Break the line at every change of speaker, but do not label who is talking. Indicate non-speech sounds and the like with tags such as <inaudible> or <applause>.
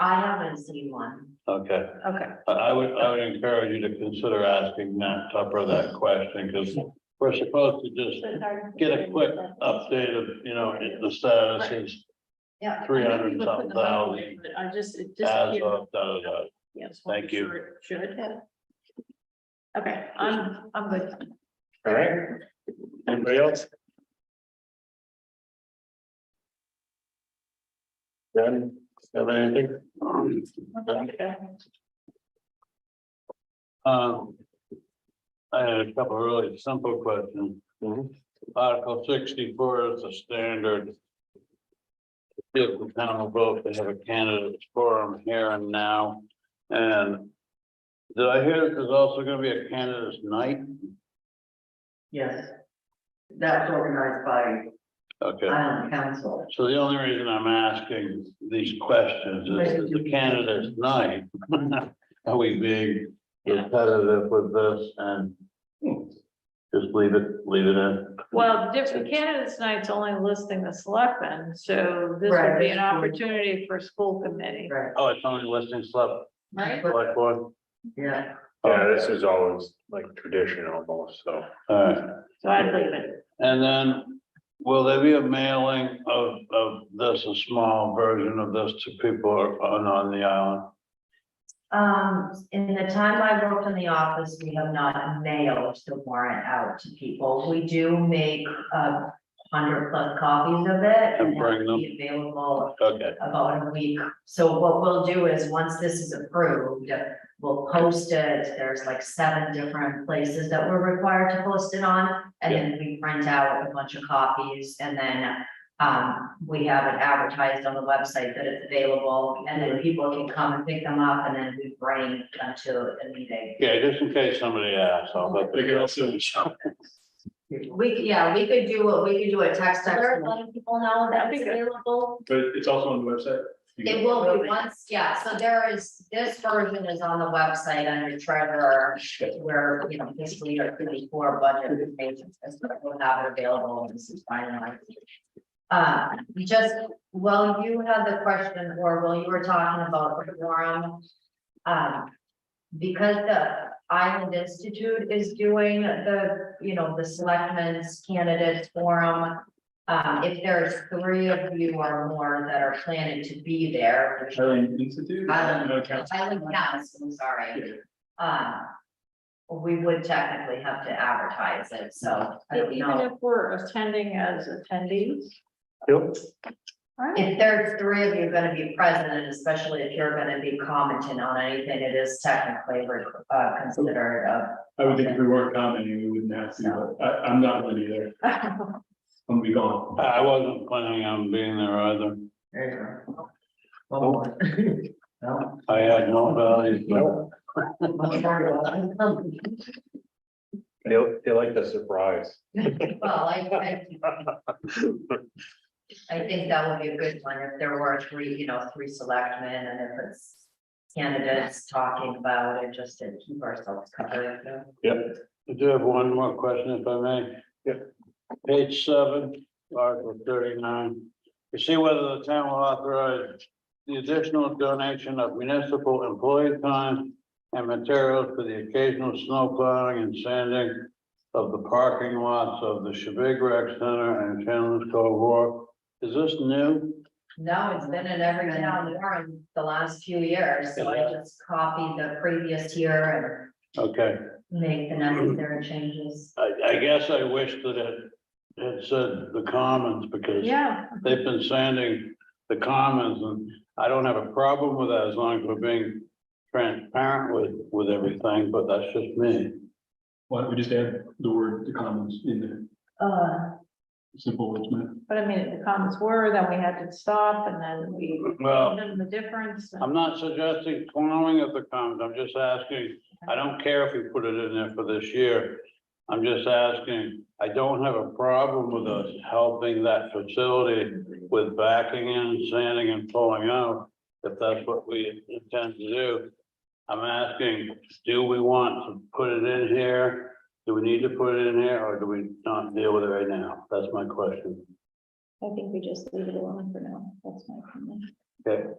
I haven't seen one.
Okay,
Okay,
I, I would, I would encourage you to consider asking Matt Tupper that question, because we're supposed to just get a quick update of, you know, the status is
Yeah.
300 and something thousand.
But I just, it just.
as of, da, da, da.
Yeah, just wanna
Thank
make
you.
sure it Should. Okay, I'm, I'm good.
All right. Anybody else? Done, have anything? Mm-hmm.
Okay.
Um, I had a couple of really simple questions.
Mhm.
Article sixty-four is the standard. If the town will vote, they have a candidate forum here and now, and did I hear there's also gonna be a candidate's night?
Yes. That's organized by um,
Okay,
Island Council.
so the only reason I'm asking these questions is that the candidate's night. <laughs> Are we being repetitive with this and just leave it, leave it in?
Well, different candidates night's only listing the selectmen, so this would be an
Right.
opportunity for school committee,
Right,
Oh, it's only listing select,
right?
But-
select board?
yeah.
Yeah, this is always like tradition almost, so.
Alright,
So I'd leave it.
and then will there be a mailing of, of this, a small version of this to people on, on the island?
Um, in the time I worked in the office, we have not mailed the warrant out to people. We do make a hundred plus copies of it.
And bring
that'll be Available
Okay,
about a week. So what we'll do is, once this is approved, we'll post it. There's like seven different places that we're required to post it on. And then we print out a bunch of copies and then um, we have it advertised on the website that it's available. And then people can come and pick them up and then we bring them to the meeting.
yeah, just in case somebody asks, I'll let
They
the
can also,
We, could- yeah, we could do, a- we could do a text
alert,
text.
letting people know that it's
That'd be good.
available.
but it's also on the website. You
It
can-
will be once, yeah, so there is, this version is on the website under treasurer, where, you know, this leader could be for budget information, so we'll have it available and this is finalized. Uh, just, well, you had the question, or while you were talking about the forum, um, because the Island Institute is doing the, you know, the selectmen's candidates forum, um, if there's three of you or more that are planning to be there, which
Highland Institute?
Highland.
No, council.
Island Council, I'm sorry.
Yeah.
Uh, we would technically have to advertise it, so I don't
Even
know.
if we're attending as attendees.
Yep.
All right.
If there's three of you gonna be present, and especially if you're gonna be commenting on anything, it is technically, uh, considered a.
I would think if we weren't commenting, we wouldn't have to, but I, I'm not going either. I'm gonna be gone.
I wasn't planning on being there either.
There you go. One more. No.
I had no values, but
They, they like the surprise.
Well, I, I. I think that would be a good one, if there were three, you know, three selectmen, and if it's candidates talking about it, just to keep ourselves covered. you know.
I do have one more question if I may.
Yeah.
Page seven, article thirty-nine, to see whether the town will authorize the additional donation of municipal employee time and materials for the occasional snow plowing and sanding of the parking lots of the Shabig Rec Center and Chandler's Cove War. Is this new?
No, it's been in every town warrant the last few years, so I just copied the previous year
Okay,
and make the necessary changes.
I, I guess I wish that it, it said the commons because
Yeah,
They've been sanding the commons and I don't have a problem with that as long as we're being transparent with, with everything, but that's just me.
Why don't we just add the word, the comments in there,
Uh,
simple words, man.
but I mean, if the comments were, then we had to stop and then we,
Well,
then the difference. and-
I'm not suggesting plowing of the commons. I'm just asking, I don't care if you put it in there for this year. I'm just asking, I don't have a problem with us helping that facility with backing in, sanding and pulling out, if that's what we intend to do. I'm asking, do we want to put it in here? Do we need to put it in here, or do we not deal with it right now? That's my question.
I think we just leave it alone for now, that's my opinion.